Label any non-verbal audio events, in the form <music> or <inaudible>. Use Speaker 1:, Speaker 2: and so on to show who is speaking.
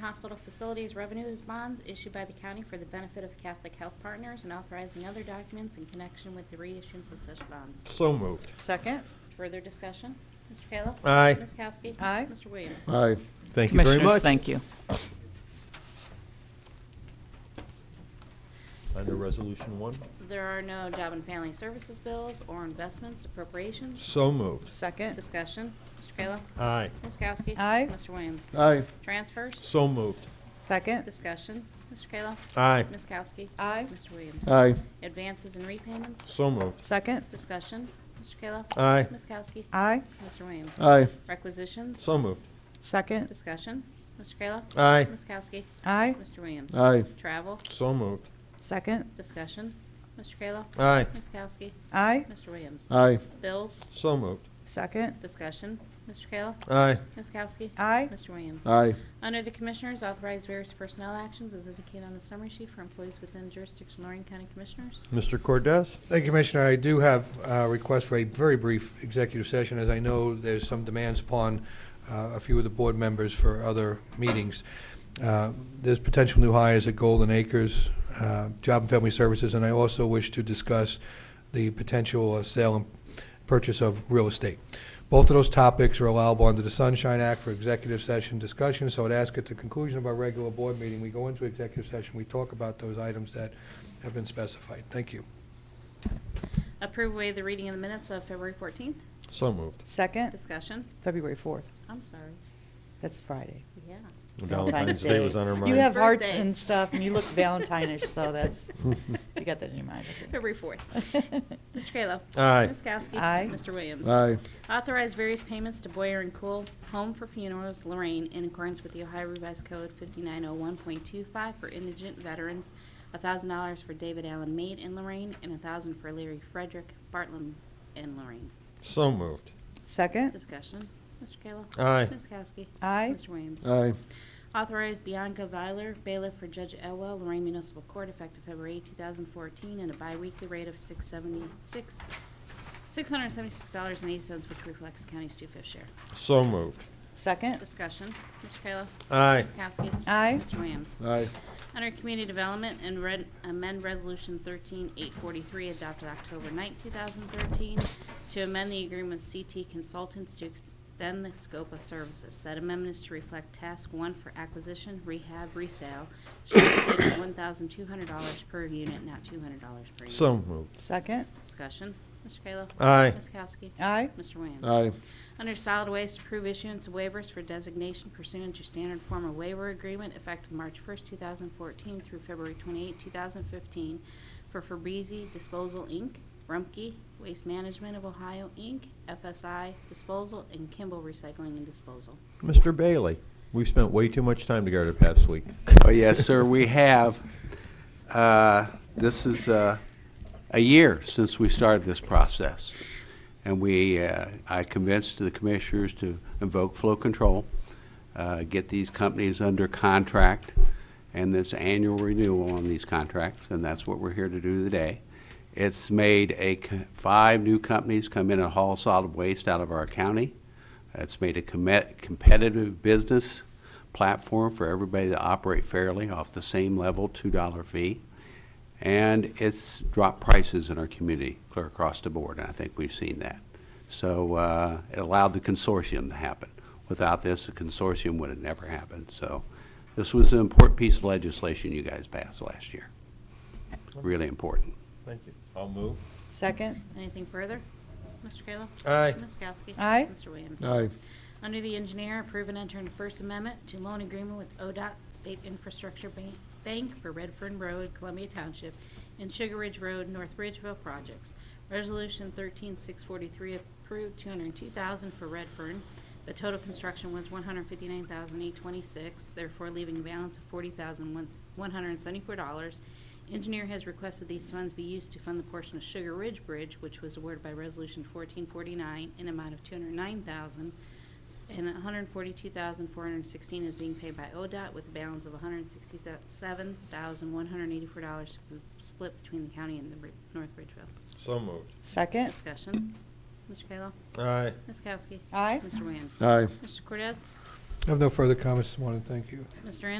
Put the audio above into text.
Speaker 1: Hospital facilities revenues bonds issued by the county for the benefit of Catholic Health Partners and authorizing other documents in connection with the reissuance of such bonds.
Speaker 2: So moved.
Speaker 3: Second.
Speaker 1: Further discussion? Mr. Kayla?
Speaker 2: Aye.
Speaker 1: Ms. Kowski?
Speaker 3: Aye.
Speaker 1: Mr. Williams?
Speaker 4: Aye.
Speaker 2: Thank you very
Speaker 3: Commissioners,
Speaker 2: much.
Speaker 3: thank you.
Speaker 2: Under Resolution 1,
Speaker 1: There are no job and family services bills or investments appropriations.
Speaker 2: so moved.
Speaker 3: Second.
Speaker 1: Discussion? Mr. Kayla?
Speaker 2: Aye.
Speaker 1: Ms. Kowski?
Speaker 3: Aye.
Speaker 1: Mr. Williams?
Speaker 4: Aye.
Speaker 1: Transfers?
Speaker 2: So moved.
Speaker 3: Second.
Speaker 1: Discussion? Mr. Kayla?
Speaker 2: Aye.
Speaker 1: Ms. Kowski?
Speaker 3: Aye.
Speaker 1: Mr. Williams?
Speaker 4: Aye.
Speaker 1: Advances and repayments?
Speaker 2: So moved.
Speaker 3: Second.
Speaker 1: Discussion? Mr. Kayla?
Speaker 2: Aye.
Speaker 1: Ms. Kowski?
Speaker 3: Aye.
Speaker 1: Mr. Williams?
Speaker 4: Aye.
Speaker 1: Requisitions?
Speaker 2: So moved.
Speaker 3: Second.
Speaker 1: Discussion. Mr. Kayla?
Speaker 2: Aye.
Speaker 1: Ms. Kowski?
Speaker 3: Aye.
Speaker 1: Mr. Williams?
Speaker 4: Aye.
Speaker 1: Travel?
Speaker 2: So moved.
Speaker 3: Second.
Speaker 1: Discussion. Mr. Kayla?
Speaker 2: Aye.
Speaker 1: Ms. Kowski?
Speaker 3: Aye.
Speaker 1: Mr. Williams?
Speaker 4: Aye.
Speaker 1: Bills?
Speaker 2: So moved.
Speaker 3: Second.
Speaker 1: Discussion. Mr. Kayla?
Speaker 2: Aye.
Speaker 1: Ms. Kowski?
Speaker 3: Aye.
Speaker 1: Mr. Williams?
Speaker 4: Aye.
Speaker 1: Under the Commissioners, authorize various personnel actions as indicated on the summary sheet for employees within jurisdiction of Lorraine County Commissioners.
Speaker 2: Mr. Cordes.
Speaker 5: Thank you, Commissioner. I do have a request for a very brief executive session, as I know there's some demands upon uh, a few of the board members for other meetings. Uh, There's potential new hires at Golden Acres, uh, Job and Family Services, and I also wish to discuss the potential of sale and purchase of real estate. Both of those topics are allowable under the Sunshine Act for executive session discussion, so I'd ask at the conclusion of our regular board meeting, we go into executive session, we talk about those items that have been specified. Thank you.
Speaker 1: Approve way the reading of the minutes of February 14th.
Speaker 2: So moved.
Speaker 3: Second.
Speaker 1: Discussion.
Speaker 3: February 4th.
Speaker 1: I'm sorry.
Speaker 3: That's Friday.
Speaker 1: Yeah.
Speaker 2: Valentine's Day was on our
Speaker 3: You
Speaker 2: mind.
Speaker 3: have hearts
Speaker 1: Birthday.
Speaker 3: and stuff, and you look Valentine-ish,
Speaker 1: <laughs>
Speaker 3: so that's, you got that in your mind. I think.
Speaker 1: February
Speaker 3: <laughs>
Speaker 1: 4th. Mr. Kayla?
Speaker 2: Aye.
Speaker 1: Ms. Kowski?
Speaker 3: Aye.
Speaker 1: Mr. Williams?
Speaker 4: Aye.
Speaker 1: Authorize various payments to Boyer and Cool Home for Funerals Lorraine in accordance with the Ohio Revised Code 5901.25 for indigent veterans, $1,000 for David Allen Maid in Lorraine, and $1,000 for Larry Frederick Bartlam in Lorraine.
Speaker 2: So moved.
Speaker 3: Second.
Speaker 1: Discussion. Mr. Kayla?
Speaker 2: Aye.
Speaker 1: Ms. Kowski?
Speaker 3: Aye.
Speaker 1: Mr. Williams?
Speaker 4: Aye.
Speaker 1: Authorize Bianca Viler, bailiff for Judge Elwell, Lorraine Municipal Court, effective February 2014, at a biweekly rate of 676 $676.80, which reflects the county's two-fifth share.
Speaker 2: So moved.
Speaker 3: Second.
Speaker 1: Discussion. Mr. Kayla.
Speaker 2: Aye.
Speaker 1: Ms. Kowski.
Speaker 3: Aye.
Speaker 1: Mr. Williams.
Speaker 4: Aye.
Speaker 1: Under Community Development and red- amend Resolution 13843 adopted October 9, 2013, to amend the agreement of CT Consultants to extend the scope of services. Said amendment is to reflect Task 1 for acquisition, rehab, resale, should be <coughs> set at $1,200 per unit, not $200 per unit.
Speaker 2: So moved.
Speaker 3: Second.
Speaker 1: Discussion. Mr. Kayla.
Speaker 2: Aye.
Speaker 1: Ms. Kowski.
Speaker 3: Aye.
Speaker 1: Mr. Williams.
Speaker 4: Aye.
Speaker 1: Under solid waste, approve issuance of waivers for designation pursuant to standard form of waiver agreement effective March 1st, 2014 through February 28, 2015 for Fabrizi Disposal, Inc., Rumpke Waste Management of Ohio, Inc., FSI Disposal, and Kimball Recycling and Disposal.
Speaker 2: Mr. Bailey, we've spent way too much time together the past week.
Speaker 6: Oh, yes, sir, we have. Uh, This is uh, a year since we started this process. And we, uh, I convinced the commissioners to invoke flow control, uh, get these companies under contract, and this annual renewal on these contracts, and that's what we're here to do today. It's made a, co- five new companies come in and haul solid waste out of our county. It's made a commet- competitive business platform for everybody to operate fairly off the same level, $2 fee. And it's dropped prices in our community clear across the board, and I think we've seen that. So uh, it allowed the consortium to happen. Without this, the consortium would have never happened. So this was an important piece of legislation you guys passed last year. Really important.
Speaker 2: Thank you. I'll move.
Speaker 3: Second.
Speaker 1: Anything further? Mr. Kayla?
Speaker 2: Aye.
Speaker 1: Ms. Kowski?
Speaker 3: Aye.
Speaker 1: Mr. Williams?
Speaker 4: Aye.
Speaker 1: Under the engineer, approve and enter into First Amendment to loan agreement with ODOT State Infrastructure Ban- Bank for Redfern Road, Columbia Township, and Sugar Ridge Road, North Ridgeville projects. Resolution 13643 approved 202000 for Redfern. The total construction was 159826 therefore leaving a balance of $40,174. Engineer has requested these funds be used to fund the portion of Sugar Ridge Bridge, which was awarded by Resolution 1449, an amount of 209000 and 142416 is being paid by ODOT with a balance of $167,184 split between the county and the Ri- North Ridgeville.
Speaker 2: So moved.
Speaker 3: Second.
Speaker 1: Discussion. Mr. Kayla?
Speaker 2: Aye.
Speaker 1: Ms. Kowski?
Speaker 3: Aye.
Speaker 1: Mr. Williams?
Speaker 4: Aye.
Speaker 1: Mr. Cortez?
Speaker 5: I have no further comments this morning, thank you.
Speaker 1: Mr. Ennis?